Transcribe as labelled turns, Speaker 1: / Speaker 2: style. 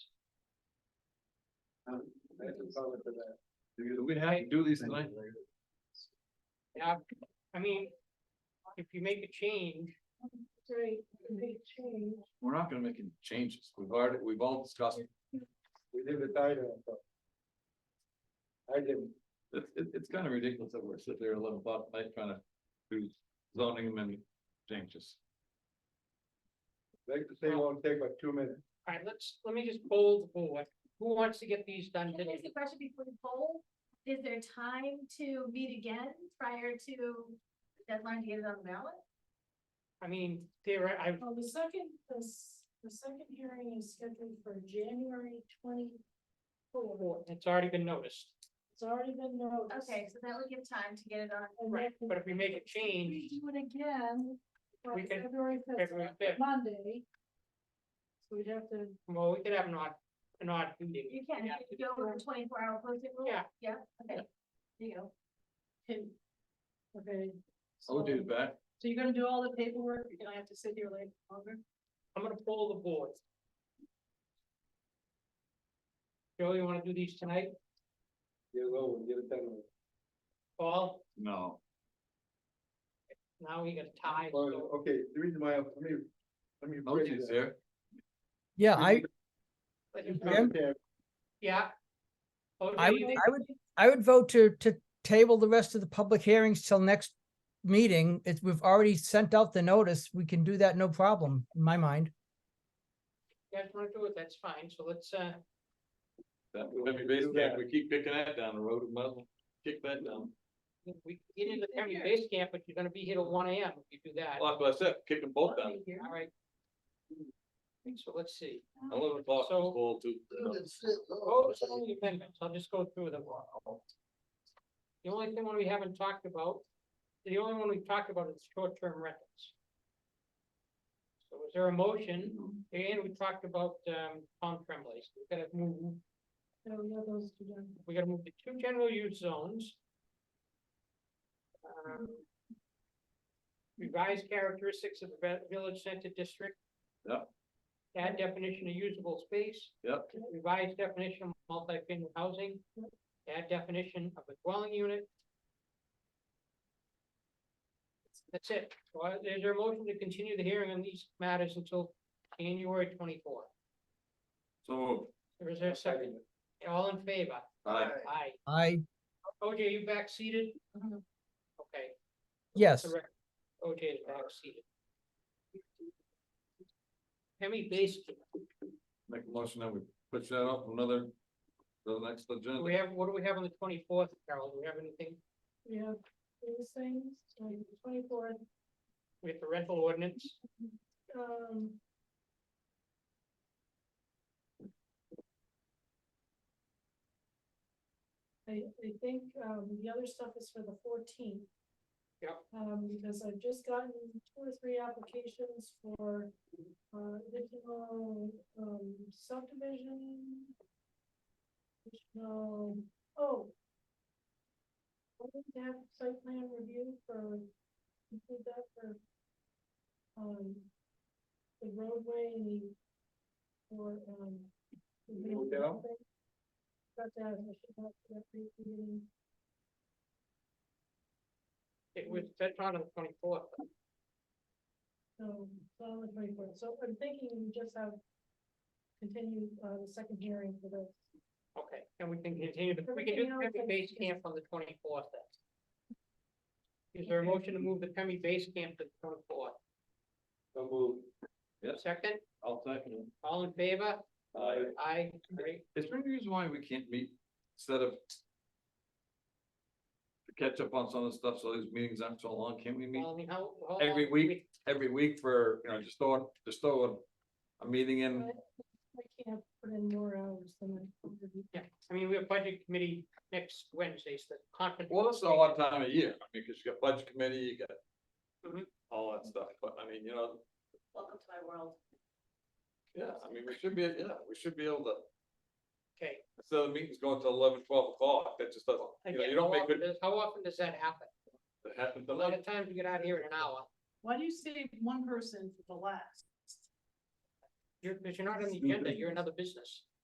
Speaker 1: We'd have to do these tonight.
Speaker 2: Yeah, I mean, if you make a change,
Speaker 3: Right, they change.
Speaker 1: We're not gonna make any changes. We've already, we've all discussed. it.
Speaker 4: We did it tighter. I didn't.
Speaker 1: It's, it- it's kind of ridiculous that we're sitting there at eleven o'clock at night trying to do zoning amendment changes.
Speaker 4: They, they won't take but two minutes.
Speaker 2: all right, let's, let me just poll the board. Who wants to get these done
Speaker 3: Here's
Speaker 2: today?
Speaker 3: the question before the poll, is there time to meet again prior to deadline to get it on the ballot?
Speaker 2: I mean, there, are- I,
Speaker 5: Well, Oh, the second, the, s- the second hearing is scheduled for January twenty-four.
Speaker 2: it's already been noticed.
Speaker 5: It's already been noticed.
Speaker 3: Okay, so that would give time to get it on.
Speaker 5: And
Speaker 2: Right,
Speaker 5: then
Speaker 2: but if we make a
Speaker 5: We
Speaker 2: change,
Speaker 5: do it again, for
Speaker 2: We can-
Speaker 5: February fifth,
Speaker 2: February fifth,
Speaker 5: Monday. So we'd have to,
Speaker 2: well, we could have an odd, an odd meeting.
Speaker 3: You can, you can go with the twenty-four hour posting rule?
Speaker 2: Yeah.
Speaker 3: Yeah, okay. There you go.
Speaker 5: can- okay.
Speaker 1: I'll do
Speaker 5: so-
Speaker 1: that.
Speaker 5: So you're gonna do all the paperwork, you're gonna have to sit here like longer?
Speaker 2: I'm gonna poll the board. Joe, you wanna do these tonight?
Speaker 4: Get it over, get it done.
Speaker 2: Paul,
Speaker 1: No,
Speaker 2: now we got a tie.
Speaker 4: Well,
Speaker 2: so-
Speaker 4: Okay, the reason why, I- let me, let me.
Speaker 1: no
Speaker 4: break
Speaker 1: changes
Speaker 4: that.
Speaker 1: there.
Speaker 6: Yeah, I,
Speaker 4: Yeah,
Speaker 2: Yeah. Oh,
Speaker 6: I
Speaker 2: Okay,
Speaker 6: would,
Speaker 2: you think-
Speaker 6: I would, I would vote to, to table the rest of the public hearings till next meeting. It's, we've already sent out the notice. We can do that, no problem, in my mind.
Speaker 2: you guys wanna do it, that's fine, so let's, uh,
Speaker 1: That, I mean, basically, if we keep kicking that down the road, we might as well kick that down.
Speaker 2: we can get into the county base camp, but you're gonna be here till one AM if you do that.
Speaker 1: Like I said, kick them both down.
Speaker 2: All right. So let's see.
Speaker 1: Eleven o'clock is
Speaker 2: So-
Speaker 1: full too.
Speaker 2: Oh, some of the amendments, I'll just go through them. The only thing one we haven't talked about, the only one we've talked about is short-term rentals. So is there a motion?
Speaker 6: Mm-hmm.
Speaker 2: And we talked about, um, Tom Tremblay, so we gotta move,
Speaker 5: No, yeah, those two done.
Speaker 2: we gotta move to two general use zones. Um, Revise characteristics of the vi- village center district.
Speaker 1: Yep.
Speaker 2: Add definition of usable space.
Speaker 1: Yep.
Speaker 2: Revised definition of multifamily housing, add definition of a dwelling unit. That's it. Well, is there a motion to continue the hearing on these matters until January twenty-four?
Speaker 1: So,
Speaker 2: Or is there a second? All in favor?
Speaker 1: I,
Speaker 2: Aye.
Speaker 6: I,
Speaker 2: OJ, you back seated?
Speaker 5: Mhm.
Speaker 2: Okay.
Speaker 6: yes,
Speaker 2: Correct. OJ is back seated. Hemi Basin,
Speaker 1: make a motion that we push that up another, the next
Speaker 2: do
Speaker 1: agenda.
Speaker 2: we have, what do we have on the twenty-fourth, Carol? Do we have anything?
Speaker 5: We have those things, like the twenty-fourth,
Speaker 2: We have the rental ordinance?
Speaker 5: um. I, I think, um, the other stuff is for the fourteenth.
Speaker 2: Yep.
Speaker 5: Um, because I've just gotten two or three applications for, uh, additional, um, subdivision. Additional, oh. I think they have site plan review for, include that for um, the roadway and the, or, um. the main
Speaker 4: Hotel?
Speaker 5: driveway. Got that, I should have that brief meeting.
Speaker 2: It was, that's on the twenty-fourth.
Speaker 5: so, so on the twenty-fourth, so I'm thinking we just have continue, uh, the second hearing for the,
Speaker 2: Okay, and we can continue, the- we can do
Speaker 5: Everything
Speaker 2: the
Speaker 5: else
Speaker 2: Pemmy
Speaker 5: is-
Speaker 2: Base Camp on the twenty-fourth then. Is there a motion to move the Pemmy Base Camp to the twenty-fourth?
Speaker 4: So move.
Speaker 1: Yes,
Speaker 2: Second,
Speaker 1: I'll second it.
Speaker 2: all in favor?
Speaker 1: Aye.
Speaker 2: Aye, great.
Speaker 1: Is there any reason why we can't meet instead of to catch up on some of the stuff, so these meetings aren't so long, can't we meet
Speaker 2: Well, I mean, how, how long
Speaker 1: Every
Speaker 2: do
Speaker 1: week.
Speaker 2: we-
Speaker 1: every week for, you know, just throw, just throw a, a meeting in?
Speaker 5: I can't put in more hours than. I can do.
Speaker 2: Yeah, I mean, we have budget committee next Wednesday, so the conference.
Speaker 1: Well, it's a odd time of year, I mean, cause you got budget committee, you got
Speaker 2: Mhm.
Speaker 1: all that stuff, but I mean, you know,
Speaker 3: Welcome to my world.
Speaker 1: yeah, I mean, we should be, yeah, we should be able to,
Speaker 2: Okay.
Speaker 1: instead of meetings going till eleven, twelve o'clock, that just doesn't, you know,
Speaker 2: again,
Speaker 1: you
Speaker 2: how
Speaker 1: don't make
Speaker 2: often
Speaker 1: it
Speaker 2: does- How often does that happen?
Speaker 1: happen.
Speaker 2: A lot of times we get out here in an hour,
Speaker 5: Why do you save one person for the last?
Speaker 2: you're, because you're not on the agenda, you're another business.